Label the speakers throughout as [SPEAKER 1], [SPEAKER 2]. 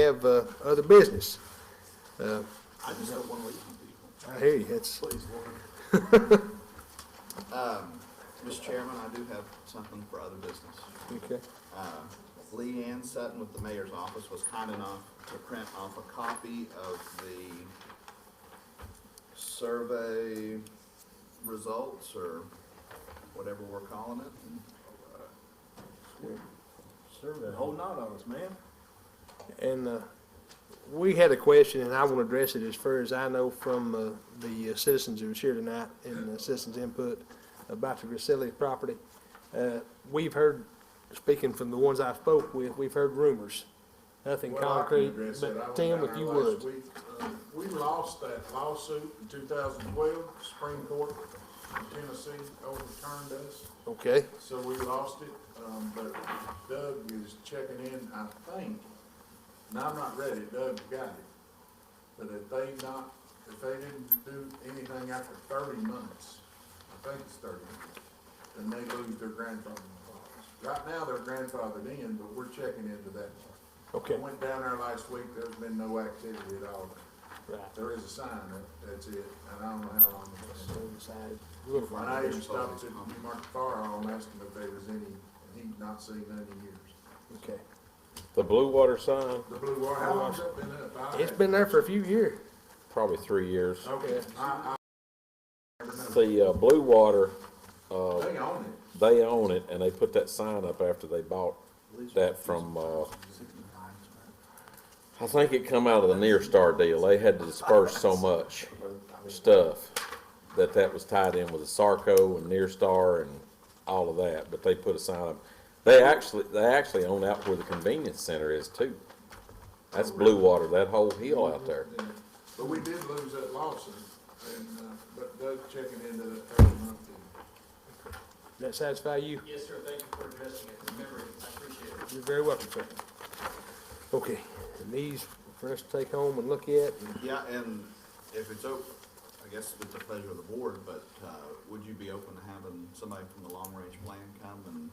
[SPEAKER 1] have uh, other business. Uh,
[SPEAKER 2] I just don't want to leave from people.
[SPEAKER 1] I hear you, it's,
[SPEAKER 2] Please, Lord. Um, Mr. Chairman, I do have something for other business.
[SPEAKER 1] okay.
[SPEAKER 2] Uh, Lee Ann Sutton with the mayor's office was kind enough to print off a copy of the survey results or whatever we're calling it.
[SPEAKER 3] Survey, holding out on us, man.
[SPEAKER 1] And uh, we had a question, and I want to address it as far as I know from uh, the uh, citizens who was here tonight and the citizens' input about the Griselli property. Uh, We've heard, speaking from the ones I spoke with, we've heard rumors, nothing
[SPEAKER 4] Well, I can
[SPEAKER 1] concrete,
[SPEAKER 4] address that. I
[SPEAKER 1] but
[SPEAKER 4] was
[SPEAKER 1] Tim,
[SPEAKER 4] down
[SPEAKER 1] if
[SPEAKER 4] there
[SPEAKER 1] you
[SPEAKER 4] last
[SPEAKER 1] would.
[SPEAKER 4] week. Uh, We lost that lawsuit in two thousand twelve, Supreme Court, of Tennessee overturned us,
[SPEAKER 1] Okay,
[SPEAKER 4] so we lost it. Um, but Doug is checking in, I think, and I'm not ready, Doug got it. But if they not, if they didn't do anything after thirty months, I think it's thirty months, then they lose their grandfather. Right now, they're grandfathered in, but we're checking into that part. I
[SPEAKER 1] okay,
[SPEAKER 4] went down there last week, there's been no activity at all.
[SPEAKER 1] right.
[SPEAKER 4] There is a sign, that, that's it, and I don't know how long. it's
[SPEAKER 1] So
[SPEAKER 4] been.
[SPEAKER 1] we decided, we'll find-
[SPEAKER 4] My neighbor stopped at New Market Fire Hall and asked him if there was any, and he'd not seen none in years.
[SPEAKER 1] Okay.
[SPEAKER 5] The Blue Water sign,
[SPEAKER 4] The Blue Water, how long's that been up? I-
[SPEAKER 1] It's been there for a few years.
[SPEAKER 5] probably three years.
[SPEAKER 4] Okay, I, I, never know.
[SPEAKER 5] The uh, Blue Water,
[SPEAKER 4] they own it,
[SPEAKER 5] they own it, and they put that sign up after they bought that from, uh, I think it come out of the Near Star deal. They had to disperse so much stuff that that was tied in with the Sarco and Near Star and all of that, but they put a sign up. They actually, they actually own out where the convenience center is too. That's Blue Water, that whole hill out there.
[SPEAKER 4] yeah. but we did lose that lawsuit, and, uh, but Doug checking into that every month.
[SPEAKER 1] Does that satisfy you?
[SPEAKER 6] Yes, sir, thank you for addressing it, remember, it. I appreciate it.
[SPEAKER 1] You're very welcome, sir. Okay, and these for us to take home and look at, and
[SPEAKER 2] Yeah, and if it's open, I guess it's the pleasure of the board, but uh, would you be open to having somebody from the long-range plan come and,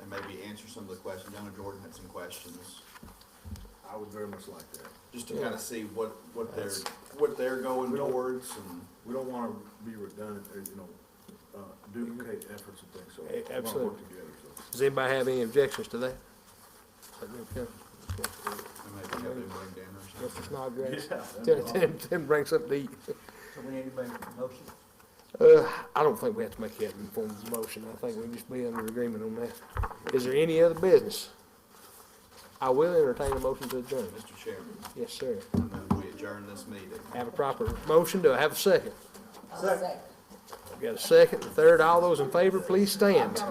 [SPEAKER 2] and maybe answer some of the questions? Young and Jordan had some questions,
[SPEAKER 3] I would very much like that.
[SPEAKER 2] just to kind of see what, what they're, what they're going
[SPEAKER 3] We don't-
[SPEAKER 2] towards and.
[SPEAKER 3] We don't wanna be redundant, or, you know, uh, duplicate efforts and things, so. we
[SPEAKER 1] Eh,
[SPEAKER 3] wanna work
[SPEAKER 1] absolutely.
[SPEAKER 3] together, so.
[SPEAKER 1] does anybody have any objections to that? Let me come.
[SPEAKER 2] And maybe have them bring dinner or something.
[SPEAKER 1] Mr. Snodgrass,
[SPEAKER 3] Yeah.
[SPEAKER 1] Tim, Tim, Tim bring something to eat.
[SPEAKER 6] So we need to make a motion?
[SPEAKER 1] Uh, I don't think we have to make that in form of a motion, I think we can just be under agreement on that. Is there any other business? I will entertain a motion to adjourn.
[SPEAKER 2] Mr. Chairman,
[SPEAKER 1] Yes, sir.
[SPEAKER 2] I move we adjourn this meeting.
[SPEAKER 1] Have a proper motion, do I have a second?
[SPEAKER 7] I'll second.
[SPEAKER 1] Got a second, a third, all those in favor, please stand.